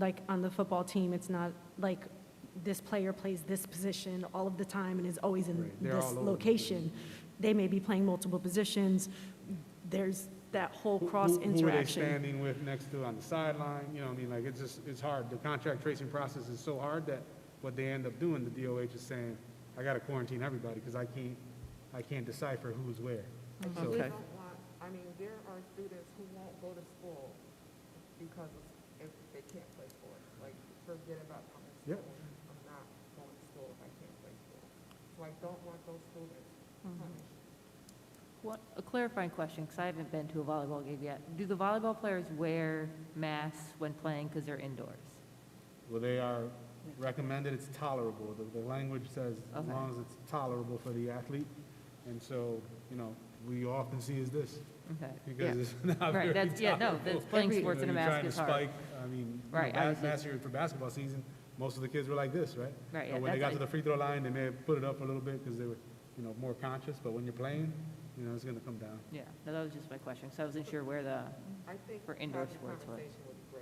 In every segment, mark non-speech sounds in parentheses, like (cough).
like on the football team, it's not like this player plays this position all of the time and is always in Right, they're all this over the place. location. They may be playing multiple positions. There's that whole cross Who- Who are they interaction. standing with next to on the sideline? You know, what I mean, like, it's just, it's hard. The contract tracing process is so hard that what they end up doing, the DOH is saying, I gotta quarantine everybody because I can't, I can't decipher who's where. We So, don't want, I mean, there are students who won't go to school because of- if they can't play sports, like, forget about coming to Yep. school. I'm not going to school if I can't play sports. So I don't want those students Mm-hmm. punished. What, a clarifying question, because I haven't been to a volleyball game yet. Do the volleyball players wear masks when playing because they're indoors? well, they are recommended, it's tolerable. The, the language says as Okay. long as it's tolerable for the athlete. And so, you know, we often see is this Okay. because Yeah. it's (laughs) not very Right, that's, yeah, no, tolerable. that's playing You know, sports in a you're mask trying to is hard. spike, I mean, you know, Right, I ba- was just- last year for basketball season, most of the kids were like this, right? Right, You know, yeah, When they got that's- to the free throw line, they may have put it up a little bit because they were, you know, more conscious, but when you're playing, you know, it's gonna come down. Yeah, no, that was just my question, because I wasn't sure where the, I think For having indoor a sports, what? conversation would be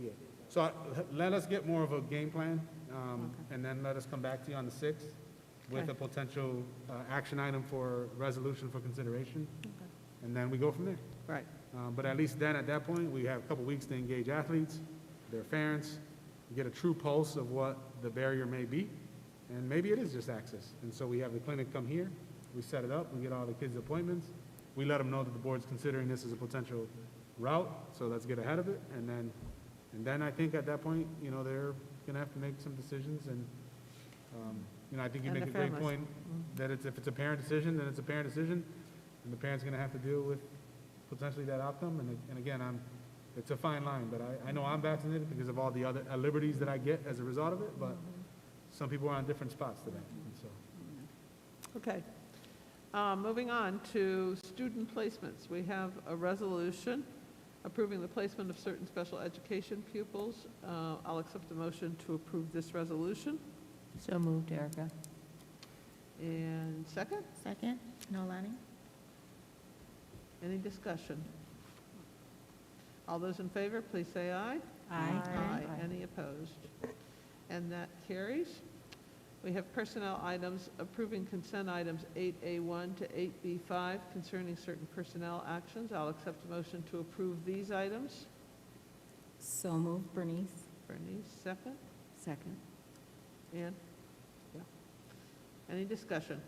great. Yeah. So I- let us get more of a game plan, um, and then let us come back to you on the sixth with Okay. a potential, uh, action item for resolution for consideration. And then we go from there. right, Um, But at least then, at that point, we have a couple weeks to engage athletes, their parents, get a true pulse of what the barrier may be, and maybe it is just access. And so we have the clinic come here, we set it up, we get all the kids' appointments, we let them know that the board's considering this as a potential route, so let's get ahead of it, and then, and then I think at that point, you know, they're gonna have to make some decisions, and, um, you know, I think you And make the a great families. Mm-hmm. point, that it's, if it's a parent decision, then it's a parent decision, and the parent's gonna have to deal with potentially that outcome, and, and again, I'm, it's a fine line, but I, I know I'm vaccinated because of all the other uh, liberties that I get as a result of it, but some people are on different spots today, and so. Okay. Uh, Moving on to student placements. We have a resolution approving the placement of certain special education pupils. Uh, I'll accept a motion to approve this resolution. so moved, Erica. And second, Second, Nolani? any discussion? All those in favor, please say aye. Aye. Aye. Any opposed? And that carries. We have personnel items, approving consent items 8A1 to 8B5 concerning certain personnel actions. I'll accept a motion to approve these items. So moved, Bernice. Bernice, second. Second. Ann? Yeah. Any discussion?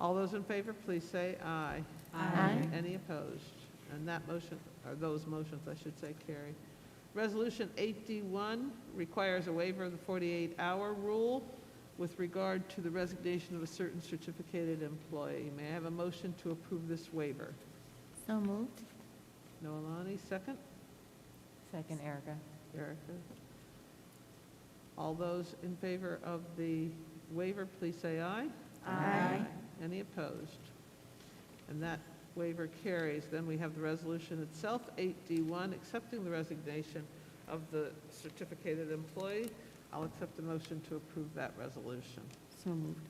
All those in favor, please say aye. Aye. Any opposed? And that motion, or those motions, I should say, carry. Resolution 8D1 requires a waiver of the 48-hour rule with regard to the resignation of a certain certificated employee. May I have a motion to approve this waiver? So moved. Noelani, second? Second, Erica. Erica. All those in favor of the waiver, please say aye. Aye. Any opposed? And that waiver carries. Then we have the resolution itself, 8D1, accepting the resignation of the certificated employee. I'll accept a motion to approve that resolution. So moved.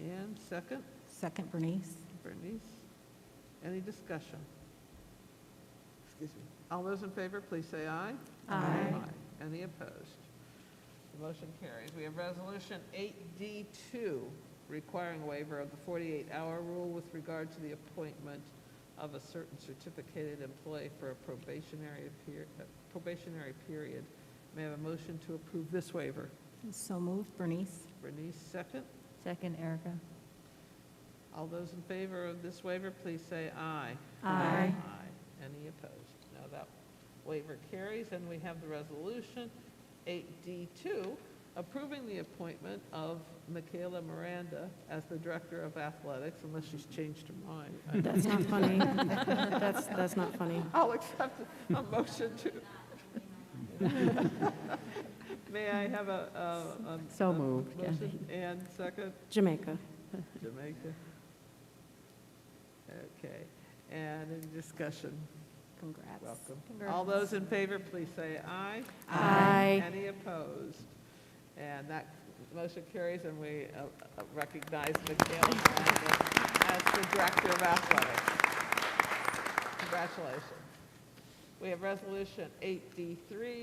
And second, Second, Bernice. Bernice. Any discussion? Excuse me. All those in favor, please say aye. Aye. Any opposed? The motion carries. We have Resolution 8D2, requiring waiver of the 48-hour rule with regard to the appointment of a certain certificated employee for a probationary, peri- uh, probationary period. May I have a motion to approve this waiver? So moved, Bernice. Bernice, second. Second, Erica. All those in favor of this waiver, please say aye. Aye. Any opposed? Now that waiver carries, and we have the resolution 8D2, approving the appointment of Michaela Miranda as the Director of Athletics, unless she's changed her mind. I- (laughs) That's not (laughs) funny. That's, that's not funny. I'll accept a motion to. (laughs) May I have a- a? a- So a moved, yeah. motion And second? Jamaica. Jamaica. Okay, and any discussion? Congrats. Welcome. All those in favor, please say aye. Aye. Any opposed? And that motion carries, and we uh, uh, recognize Michaela Miranda as the Director of Athletics. Congratulations. We have Resolution 8D3,